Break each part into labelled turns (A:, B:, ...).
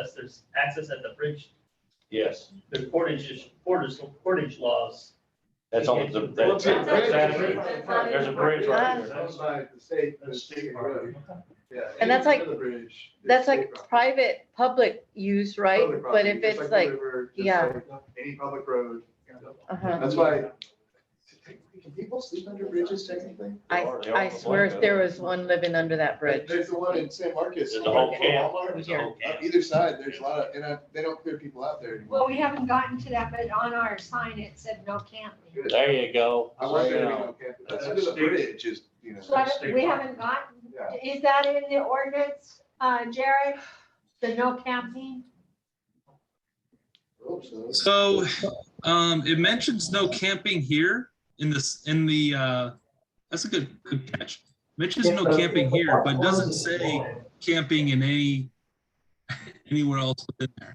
A: access, there's access at the bridge,
B: Yes,
A: the portage, portage, portage laws.
B: that's on the,
A: Well,
B: that's, that's actually,
C: There's
B: a bridge
D: right
B: there.
C: That's by the state, the
B: That's
C: state
B: state
C: road.
B: property.
C: Yeah,
D: And that's
C: any
D: like-
C: other bridge is
D: That's
C: state
D: like
C: property.
D: private, public use, right?
C: Public
D: But
C: property,
D: if
C: just
D: it's
C: the
D: like,
C: river, just
D: yeah.
C: like Any public road.
D: uh-huh,
C: That's why. Can people sleep under bridges technically?
D: I, I swear if there was one living under that bridge.
C: There's the one in San Marcos.
B: There's a whole
C: Walmart.
B: camp.
D: There's a whole
C: On Either side, there's a lot of, and I, they don't clear people out there anymore.
E: Well, we haven't gotten to that, but on our sign, it said no camping.
C: Good.
B: there you go.
C: I want there to be
B: Yeah.
C: no camp, but
B: That's
C: under the
B: state.
C: bridge is, you know.
E: So I don't- we haven't gotten,
C: Yeah.
E: is that in the ordinance, uh, Jared? The no camping?
F: So, um, it mentions no camping here in this, in the, uh, that's a good, good catch. Mentions no camping here, but doesn't say camping in any, anywhere else within there.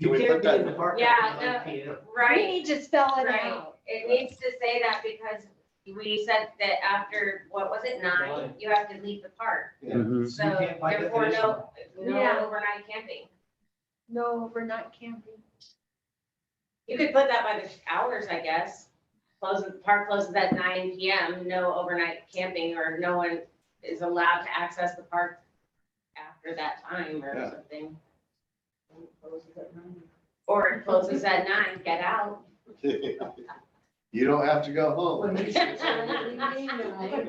C: Can we put that,
G: park
H: Yeah, no.
E: We
H: Right,
E: need to spell it
H: Right.
E: out.
H: it needs to say that because we said that after, what was it, nine, you have to leave the park.
I: Mm-hmm.
H: So
G: You can't by
H: therefore, no,
E: Yeah.
H: no overnight camping.
E: No overnight camping.
H: You could put that by the hours, I guess. Closes, park closes at nine PM, no overnight camping, or no one is allowed to access the park after that time
C: Yeah.
H: or something. Or it closes at nine, get out.
C: you don't have to go home.
J: But,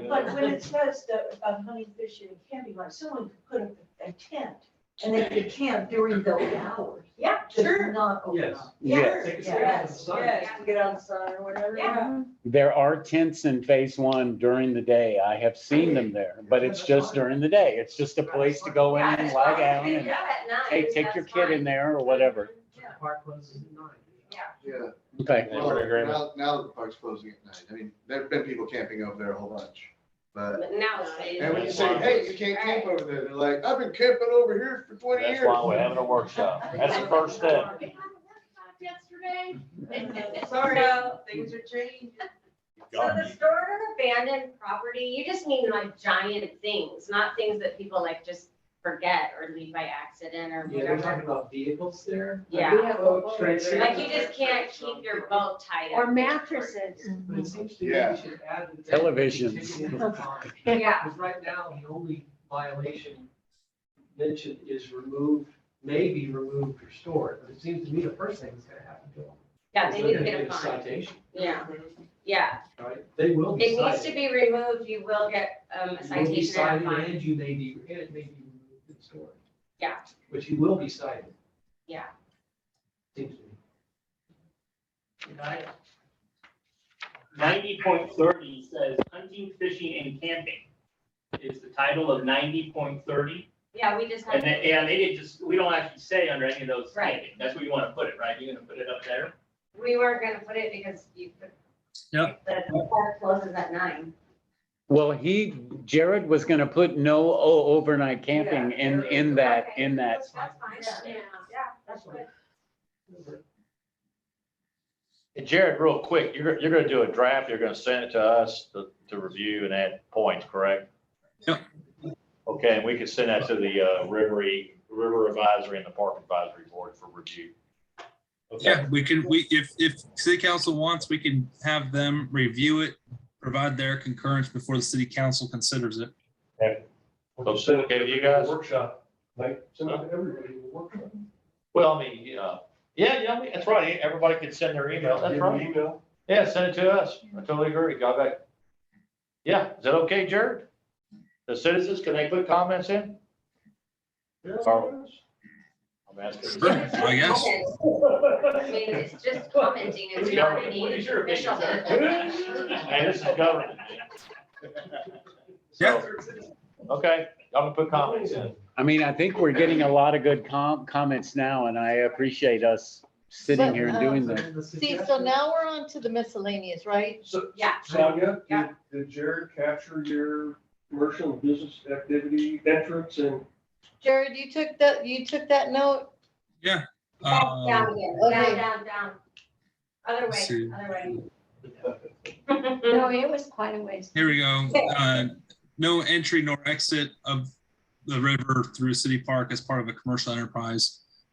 J: but when it says that about hunting, fishing, and camping, like someone could put up a tent and they could camp during those hours.
H: Yeah,
J: Just
H: sure.
J: Not open
G: Yes.
J: up.
I: Yes.
G: Take a stand in the
J: Yes,
G: sun.
J: yes, to get outside or whatever.
H: Yeah.
I: There are tents in phase one during the day. I have seen them there, but it's just during the day. It's just a place to go in
H: Yeah,
I: and
H: as
I: lie
H: long as
I: down
H: they
I: and
H: get up at nine,
I: take, take your
H: that's
I: kid
H: fine.
I: in there or whatever.
G: Park closes at nine.
C: Yeah.
I: Okay.
B: Yeah,
C: Well,
B: we're in agreement.
C: now, now that the park's closing at night, I mean, there've been people camping over there a whole bunch, but,
H: But Now it's. safe.
C: and when you say, hey, you can't camp over there, they're like, I've been camping over here for twenty years.
B: That's why we're having a workshop. That's the first step.
E: We had a workshop yesterday.
J: Mm-hmm.
H: Sorry,
J: things are changing.
H: So the store and abandoned property, you just mean like giant things, not things that people like just forget or leave by accident or
G: Yeah, they're
H: whatever.
G: talking about vehicles there.
H: Yeah,
G: Oh, trenches.
H: like you just can't keep your boat tied up.
E: Or mattresses.
G: But it seems to me
C: Yeah.
G: we should add. that they
I: Televisions.
G: continue to farm.
H: Yeah,
G: Because right now, the only violation mentioned is removed, may be removed or stored, but it seems to me the first thing that's gonna happen to them.
H: yeah,
G: is
H: they
G: they're
H: need to
G: gonna
H: get a fine.
G: Citation,
H: Yeah, yeah.
G: right? They will be
H: It
G: cited.
H: needs to be removed, you will get um, a
G: You will be
H: citation and a
G: cited
H: fine.
G: and you may be, and it may be removed and stored.
H: Yeah.
G: But you will be cited.
H: Yeah.
G: Seems to me.
A: Ninety point thirty says hunting, fishing, and camping is the title of ninety point thirty.
H: Yeah, we just
A: And
H: have,
A: then, and they did just, we don't actually say under any of those
H: Right.
A: camping. That's where you want to put it, right? You're gonna put it up there.
H: we weren't gonna put it because you. could-
F: Yep.
H: The park closes at nine.
I: Well, he, Jared was gonna put no o- overnight camping in, in that, in that.
H: That's fine, yeah, yeah, that's good.
B: And Jared, real quick, you're, you're gonna do a draft, you're gonna send it to us to, to review and add points, correct?
F: Yep.
B: Okay, and we can send that to the, uh, Rivery, River Advisory and the Park Advisory Board for review. Okay,
F: Yeah, we can, we, if, if city council wants, we can have them review it, provide their concurrence before the city council considers it.
B: so is it okay with you guys?
G: Workshop, like,
B: send it
G: everybody will work on.
B: Well, I mean, yeah, yeah, yeah, I mean, that's right, everybody can send their email, that's right.
G: Email.
B: Yeah, send it to us, I totally agree, got back. Yeah, is that okay, Jared? The citizens, can they put comments in? Or- I'm asking.
F: Sure, I guess.
H: I mean, it's just commenting, it's
B: Who's
H: not
B: government?
H: any
B: What is your
H: official.
B: opinion, Hey, this is government.
F: Yeah.
B: Okay, I'm gonna put comments in.
I: I mean, I think we're getting a lot of good com- comments now and I appreciate us sitting here and doing this.
D: uh, See, so now we're on to the miscellaneous, right?
K: So,
H: Yeah,
K: Sonia, did,
H: Yeah.
K: did Jared capture your commercial and business activity entrance and?
D: Jared, you took that, you took that note?
H: down,
F: Uh,
H: down, again,
D: Okay.
H: down, down, down. Other
F: Let's
H: way,
F: see.
H: other way.
E: No, it was quite a ways.
F: Here we go. Uh, No entry nor exit of the river through city park as part of a commercial enterprise.